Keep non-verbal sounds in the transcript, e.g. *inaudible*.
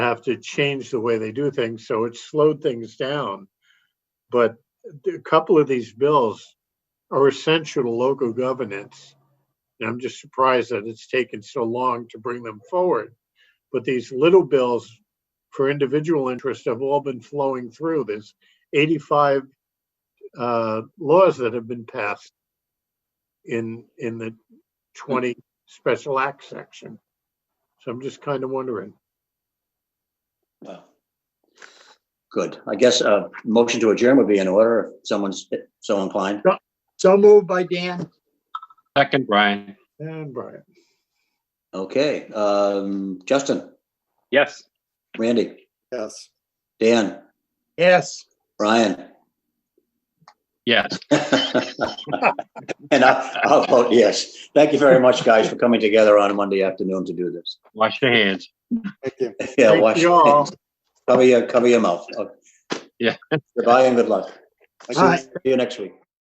have to change the way they do things, so it slowed things down. But a couple of these bills are essential to local governance. And I'm just surprised that it's taken so long to bring them forward. But these little bills for individual interest have all been flowing through. There's 85 uh, laws that have been passed in, in the 20 special act section. So I'm just kind of wondering. Well, Good. I guess a motion to adjourn would be in order if someone's so inclined. So moved by Dan. Second, Brian. And Brian, Okay, um, Justin, Yes. Randy, Yes. Dan, Yes. Brian. Yes. *laughs* And I- I'll vote yes. Thank you very much, guys, for coming together on a Monday afternoon to do this. *laughs* Wash your hands. Thank you. Yeah, Thank wash, you all. cover your, cover your mouth. Okay. Yeah. Goodbye and good luck. See Bye. you next week.